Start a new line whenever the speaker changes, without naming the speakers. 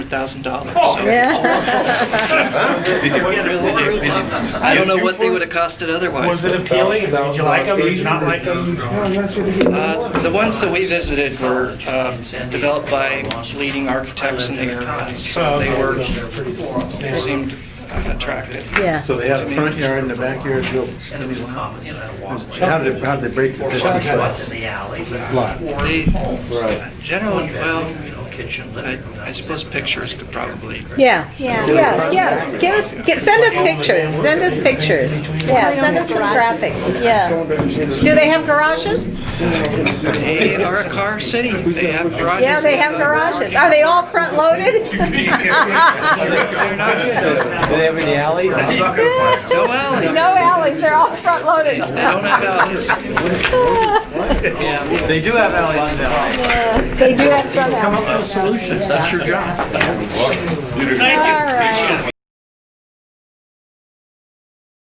thousand dollars.
Oh,
Huh?
Did you-
I don't know what they would have costed
Was
otherwise.
it appealing? Did you like them? Did you not like them?
Uh, the ones that we visited were um, developed by leading architects in the area, so they were they seemed attractive.
Yeah.
So they had a front yard and a backyard built.
And there was a common, you know, walkway.
How did, they- how did they break the
Four
fifty
by
foot?
what's in the alley, but
Lot.
four
They-
homes.
Right.
Generally, well,
You know, kitchen,
I,
living room,
I
that's
suppose
it.
pictures could probably.
Yeah,
Yeah.
yeah, yeah. Give us, get, send us pictures. Send us pictures. Yeah, send us some graphics. Yeah. Do they have garages?
They are a car city. They have garages.
Yeah, they have garages. Are they all front loaded?
They're not-
Do they have any alleys?
No alleys.
No alleys, they're all front loaded.
They don't have alleys. Yeah.
They do have alleys now.
Uh, They do have some alleys.
Solutions, that's your job.
All right.